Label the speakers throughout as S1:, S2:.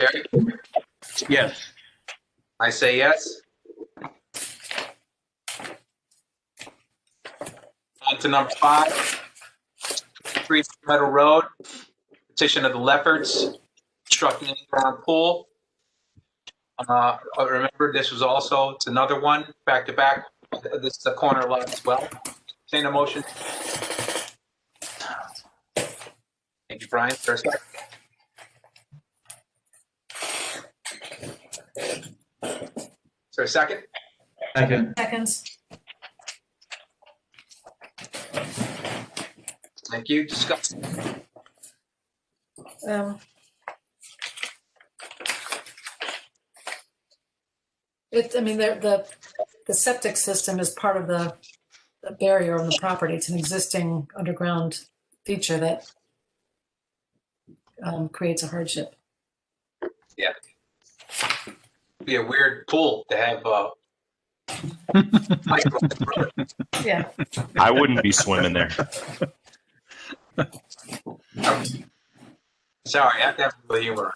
S1: Eric?
S2: Yes.
S1: I say yes. On to number five. Three Meadow Road, petition of the Lefferts, constructing an in-ground pool. Uh, remember, this was also, it's another one, back to back, this is a corner lot as well. Entertain a motion. Thank you, Brian, for a second. Is there a second?
S2: Second.
S3: Seconds.
S1: Thank you, discuss.
S3: Um, It, I mean, the, the, the septic system is part of the the barrier on the property. It's an existing underground feature that um, creates a hardship.
S1: Be a weird pool to have, uh. micro-
S3: Yeah.
S4: I wouldn't be swimming there.
S1: Sorry, I have to have a little humor.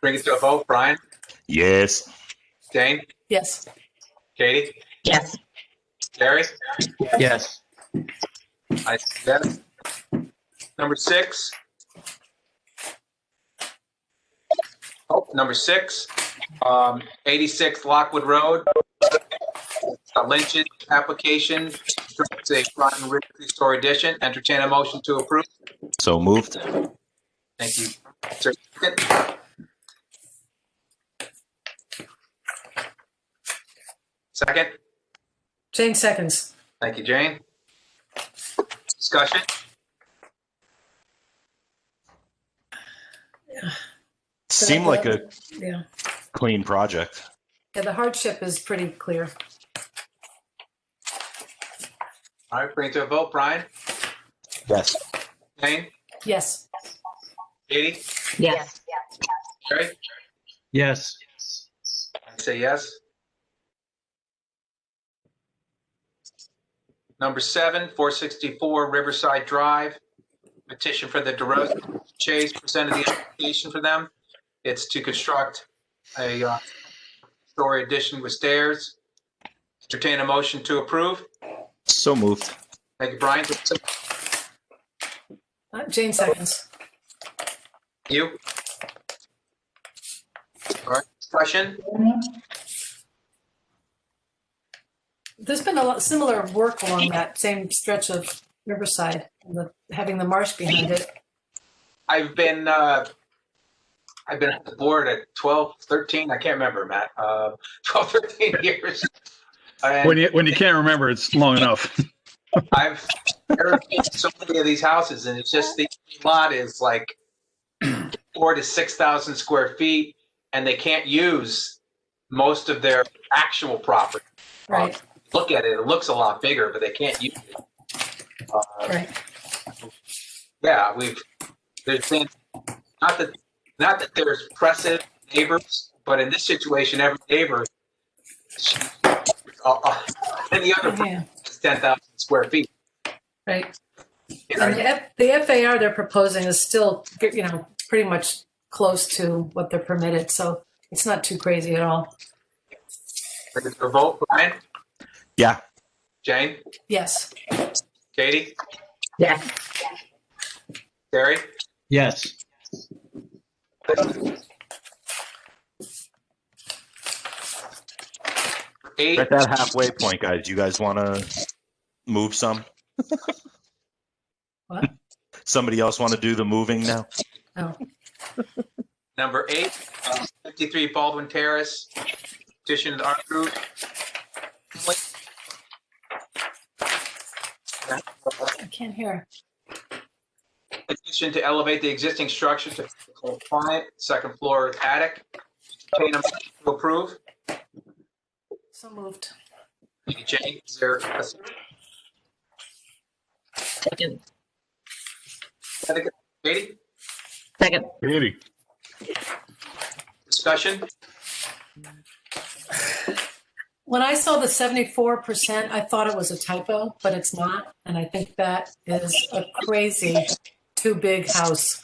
S1: Bring it to a vote, Brian,
S4: Yes.
S1: Dane,
S3: Yes.
S1: Katie,
S5: Yes.
S1: Jerry,
S2: Yes.
S1: I yes. Number six. Oh, number six, um, eighty-six Lockwood Road. A Lynch's application, constructs a front and rear three-story addition, entertain a motion to approve.
S4: So moved.
S1: Thank you. Is there a second? Second,
S3: Jane seconds.
S1: thank you, Jane. Discussion?
S4: Seemed like a
S3: Yeah.
S4: clean project.
S3: Yeah, the hardship is pretty clear.
S1: All right, bring it to a vote. Brian,
S4: Yes.
S1: Jane,
S3: Yes.
S1: Katie,
S5: Yes.
S1: Jerry?
S2: Yes.
S1: I say yes. Number seven, 464 Riverside Drive, petition for the DeRosa Chase presented the application for them. It's to construct a uh, story addition with stairs. Entertain a motion to approve.
S4: So moved.
S1: Thank you, Brian.
S3: Uh, Jane seconds.
S1: You? All right, discussion?
S3: There's been a lot similar work along that same stretch of Riverside, the, having the marsh behind it.
S1: I've been uh, I've been at the board at 12, 13, I can't remember, Matt, uh, 12, 13 years.
S6: When
S1: And
S6: you when you can't remember, it's long enough.
S1: I've barricaded so many of these houses and it's just the lot is like four to 6,000 square feet and they can't use most of their actual property.
S3: Right,
S1: Look at it, it looks a lot bigger, but they can't use it. Uh,
S3: right.
S1: Yeah, we've, there's been, not that, not that there's precedent neighbors, but in this situation, every neighbor, uh, uh, any other
S3: Yeah,
S1: is 10,000 square feet.
S3: right.
S1: you know?
S3: And the F- the FAR they're proposing is still, you know, pretty much close to what they're permitted, so it's not too crazy at all.
S1: Bring it to a vote, Brian,
S4: Yeah.
S1: Jane,
S3: Yes,
S1: Katie,
S5: Yes.
S1: Terry.
S2: Yes.
S1: Eight,
S4: At that halfway point, guys, you guys want to move some?
S3: What?
S4: Somebody else want to do the moving now?
S1: number eight, uh, 53 Baldwin Terrace, petition to our group.
S3: I can't hear.
S1: Petition to elevate the existing structure to compliant second floor attic. Entertain a motion to approve.
S3: So moved.
S1: Thank you, Jane. Is there a second?
S5: Second.
S1: Katie,
S5: Second.
S6: Really?
S1: discussion?
S3: When I saw the seventy-four percent, I thought it was a typo, but it's not, and I think that is a crazy, too big house.